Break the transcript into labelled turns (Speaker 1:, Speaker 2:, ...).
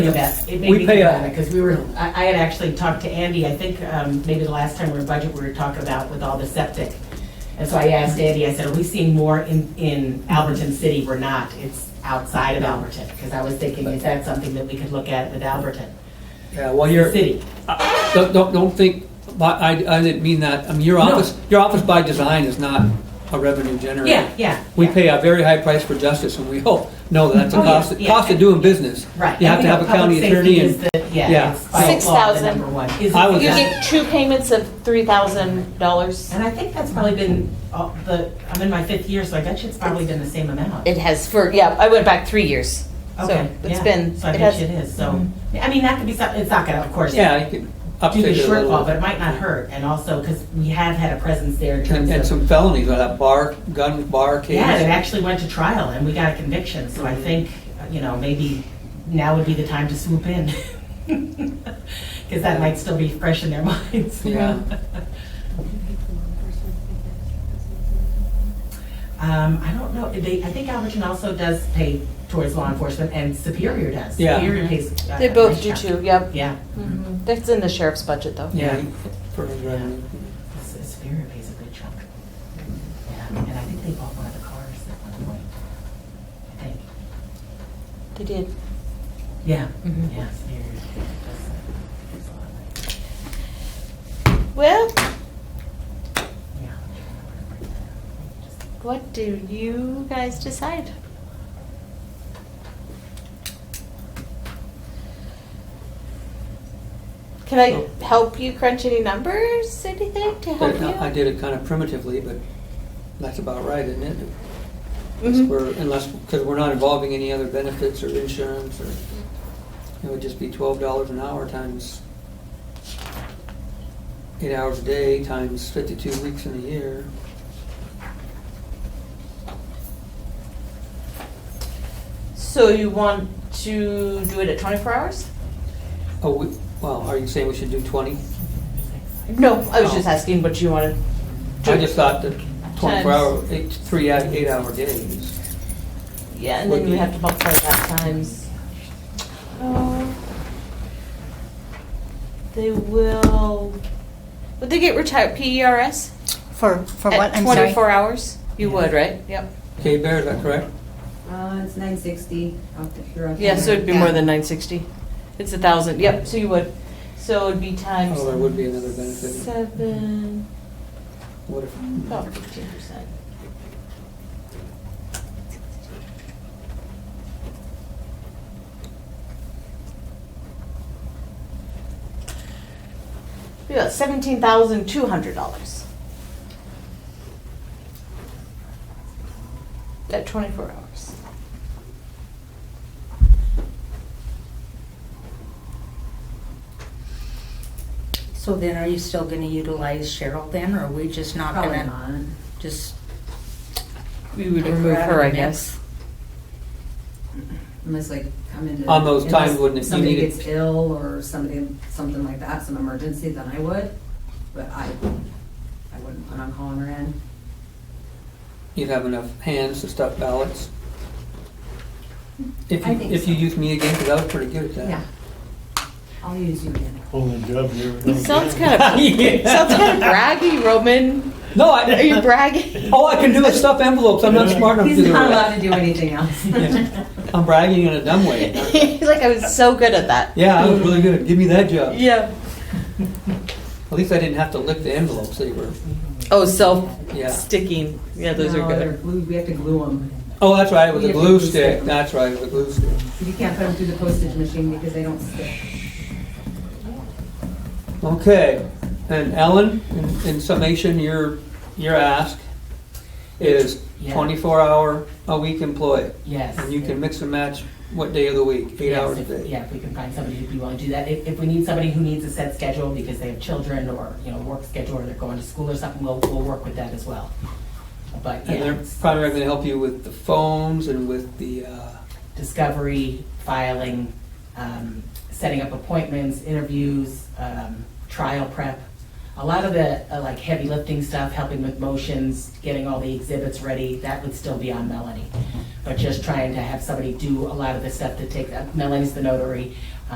Speaker 1: of that. It made
Speaker 2: We
Speaker 1: me
Speaker 2: pay
Speaker 1: think
Speaker 2: a-
Speaker 1: about it, because we were, I, I had actually talked to Andy, I think, um, maybe the last time we were in budget, we were talking about with all the septic. And so I asked Andy, I said, are we seeing more in, in Alberton City? We're not, it's outside of Alberton, because I was thinking, is that something that we could look at with Alberton
Speaker 2: Yeah, well, you're,
Speaker 1: City?
Speaker 2: don't, don't, don't think, but I, I didn't mean that, I mean, your office, your office by design is not a revenue generator.
Speaker 1: Yeah, yeah.
Speaker 2: We
Speaker 1: yeah.
Speaker 2: pay a very high price for justice, and we hope, no, that's a
Speaker 1: Oh, yeah,
Speaker 2: cost,
Speaker 1: yeah.
Speaker 2: cost of doing business.
Speaker 1: Right.
Speaker 2: You
Speaker 1: And we
Speaker 2: have to
Speaker 1: know
Speaker 2: have a
Speaker 1: public
Speaker 2: county
Speaker 1: safety
Speaker 2: attorney
Speaker 1: is
Speaker 2: and,
Speaker 1: the- Yeah,
Speaker 2: yeah.
Speaker 1: it's by law, the
Speaker 3: 6,000.
Speaker 1: number one. Is
Speaker 2: I
Speaker 1: it-
Speaker 2: was
Speaker 3: You
Speaker 1: yeah.
Speaker 3: get two payments of three thousand dollars.
Speaker 1: And I think that's probably been, uh, the, I'm in my fifth year, so I bet you it's probably been the same amount.
Speaker 3: It has for, yeah, I went back three years.
Speaker 1: Okay,
Speaker 3: So it's
Speaker 1: yeah.
Speaker 3: been,
Speaker 1: So I
Speaker 3: it
Speaker 1: bet you
Speaker 3: has, Mhm.
Speaker 1: it is, so, I mean, that could be something, it's not gonna, of course, do
Speaker 2: yeah, you can uptick
Speaker 1: the
Speaker 2: it a
Speaker 1: shortfall, but it
Speaker 2: little.
Speaker 1: might not hurt, and also, because we have had a presence there in
Speaker 2: And, and
Speaker 1: terms of.
Speaker 2: some felonies, like that bar, gun, bar case.
Speaker 1: Yeah, it actually went to trial, and we got a conviction, so
Speaker 3: Mm-hmm.
Speaker 1: I think, uh, you know, maybe now would be the time to swoop in. Because that might still be fresh in their minds.
Speaker 2: Yeah.
Speaker 1: Um, I don't know, they, I think Alberton also does pay towards law enforcement, and Superior does.
Speaker 2: Yeah.
Speaker 1: Superior pays. uh,
Speaker 3: Mm-hmm. they both do
Speaker 1: police
Speaker 3: too, yep.
Speaker 1: Yeah.
Speaker 3: Mhm. That's in the sheriff's budget though.
Speaker 2: Yeah, for his revenue.
Speaker 1: This this Superior pays a good chunk. Yeah, and I think they bought one of the cars at one point. I think.
Speaker 3: They did.
Speaker 1: Yeah,
Speaker 3: Mhm.
Speaker 1: yeah, Superior. does, uh, does a
Speaker 3: Well,
Speaker 1: lot. Yeah.
Speaker 3: what do you guys decide? Can I help you crunch any numbers, anything to help you?
Speaker 2: uh, I did it kind of primitively, but that's about right, isn't it? Unless
Speaker 4: Mm-hmm.
Speaker 3: Mhm.
Speaker 2: we're, unless, because we're not involving any other benefits or insurance or, it would just be twelve dollars an hour times eight hours a day times fifty-two weeks in a year.
Speaker 3: So you want to do it at 24 hours?
Speaker 2: Oh, we, well, are you saying we should do twenty?
Speaker 3: No, I was
Speaker 2: Oh.
Speaker 3: just asking what you wanted.
Speaker 2: I just thought that twenty-four
Speaker 3: Times.
Speaker 2: hour, eight, three out, eight hour days.
Speaker 3: Yeah, and
Speaker 2: Would
Speaker 3: then you
Speaker 2: be-
Speaker 3: have to multiply that times. Oh. They will, would they get retired PERS?
Speaker 5: For, for what? I'm
Speaker 3: At
Speaker 5: sorry.
Speaker 3: 24 hours? You
Speaker 1: Yeah.
Speaker 3: would, right? Yep.
Speaker 2: Okay, Bear, is that correct?
Speaker 4: Uh, it's nine sixty off the pure.
Speaker 3: Yeah, so it'd be more
Speaker 5: Yeah.
Speaker 3: than 960. It's a 1,000, yep, so you would. So it'd be times.
Speaker 2: Oh, there would be another benefit.
Speaker 3: Seven,
Speaker 2: What if,
Speaker 4: Oh.
Speaker 3: about 15%. We got seventeen thousand two hundred dollars. At twenty-four hours.
Speaker 5: So then are you still gonna utilize Cheryl then, or are we just not
Speaker 4: Probably
Speaker 5: gonna,
Speaker 4: not.
Speaker 5: just?
Speaker 3: We would
Speaker 5: Like
Speaker 3: remove
Speaker 5: we're out
Speaker 3: her,
Speaker 5: of
Speaker 3: I
Speaker 5: the
Speaker 3: guess.
Speaker 4: Unless like come into.
Speaker 2: On those times
Speaker 4: unless
Speaker 2: when if you
Speaker 4: Somebody
Speaker 2: needed-
Speaker 4: gets ill or somebody, something like that, some emergency, then I would, but I, I wouldn't plan on calling her in.
Speaker 2: you'd have enough hands to stuff ballots? If
Speaker 4: I
Speaker 2: you,
Speaker 4: think
Speaker 2: if you
Speaker 4: so.
Speaker 2: use me again, because I was pretty good at that.
Speaker 4: Yeah. I'll use you again.
Speaker 6: Only job you ever done.
Speaker 3: Sounds kind of, sounds kind of braggy, Roman.
Speaker 2: No,
Speaker 3: Are you
Speaker 2: I,
Speaker 3: bragging?
Speaker 2: all I can do is stuff envelopes. I'm not smart enough to
Speaker 4: He's
Speaker 2: do
Speaker 4: not allowed
Speaker 2: that.
Speaker 4: to do anything else.
Speaker 2: Yeah. I'm bragging in a dumb way.
Speaker 3: Like I was so good at that.
Speaker 2: Yeah, I was really good. Give me that job.
Speaker 3: Yeah.
Speaker 2: At least I didn't have to lick the envelopes. They were,
Speaker 3: Oh, self
Speaker 2: yeah.
Speaker 3: sticking. Yeah, those
Speaker 4: No,
Speaker 3: are
Speaker 4: they're
Speaker 3: good.
Speaker 4: glued- We have to glue them.
Speaker 2: Oh, that's right, with
Speaker 4: We
Speaker 2: a
Speaker 4: have
Speaker 2: glue
Speaker 4: to
Speaker 2: stick.
Speaker 4: glue
Speaker 2: That's right, with a glue stick.
Speaker 4: You can't put them through the postage machine because they don't stick.
Speaker 2: Okay, and Ellen, in- in summation, your, your ask is
Speaker 1: Yeah.
Speaker 2: twenty-four hour a week employee.
Speaker 1: Yes.
Speaker 2: And you can mix and match what day of the week, eight
Speaker 1: Yes,
Speaker 2: hours a
Speaker 1: if-
Speaker 2: day.
Speaker 1: Yeah, if we can find somebody who'd be willing to do that. If, if we need somebody who needs a set schedule because they have children or, you know, work schedule or they're going to school or something, we'll, we'll work with that as well. But
Speaker 2: And
Speaker 1: yeah,
Speaker 2: they're primarily gonna help you with the phones and with the, uh,
Speaker 1: discovery, filing, um, setting up appointments, interviews, um, trial prep, A lot of the, uh, like, heavy lifting stuff, helping with motions, getting all the exhibits ready, that would still be on Melanie. But just trying to have somebody do a lot of the stuff that takes, uh, Melanie's the notary,